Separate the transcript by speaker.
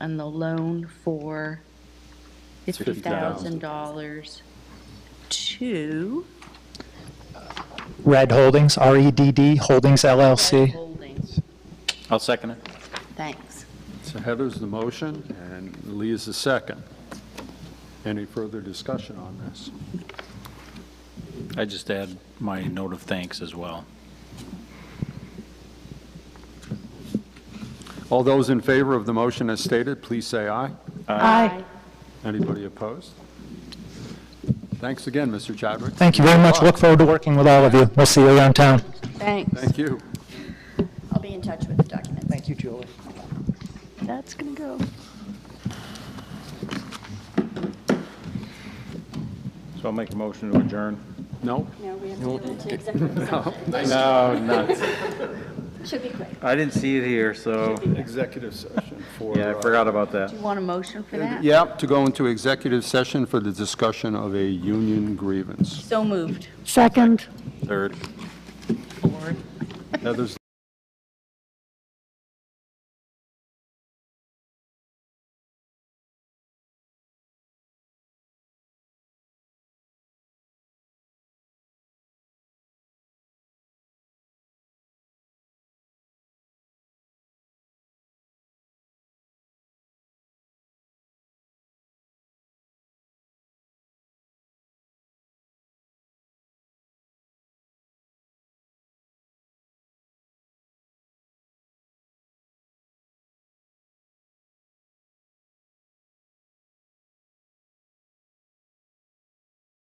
Speaker 1: on the loan for $50,000 to
Speaker 2: Red Holdings, R-E-D-D Holdings LLC.
Speaker 1: Holdings.
Speaker 3: I'll second it.
Speaker 1: Thanks.
Speaker 4: So Heather's the motion, and Lee is the second. Any further discussion on this?
Speaker 3: I just add my note of thanks as well.
Speaker 4: All those in favor of the motion as stated, please say aye.
Speaker 1: Aye.
Speaker 4: Anybody opposed? Thanks again, Mr. Chadwick.
Speaker 2: Thank you very much. Look forward to working with all of you. We'll see you around town.
Speaker 1: Thanks.
Speaker 4: Thank you.
Speaker 5: I'll be in touch with the documents.
Speaker 2: Thank you, Julie.
Speaker 1: That's going to go.
Speaker 3: So I'll make a motion to adjourn.
Speaker 4: No?
Speaker 5: No, we have to go into executive session.
Speaker 3: No, not,
Speaker 5: Should be quick.
Speaker 3: I didn't see it here, so,
Speaker 4: Executive session for...
Speaker 3: yeah, I forgot about that.
Speaker 1: You want a motion for that?
Speaker 4: Yep, to go into executive session for the discussion of a union grievance.
Speaker 1: So moved.
Speaker 3: Third.
Speaker 4: Heather's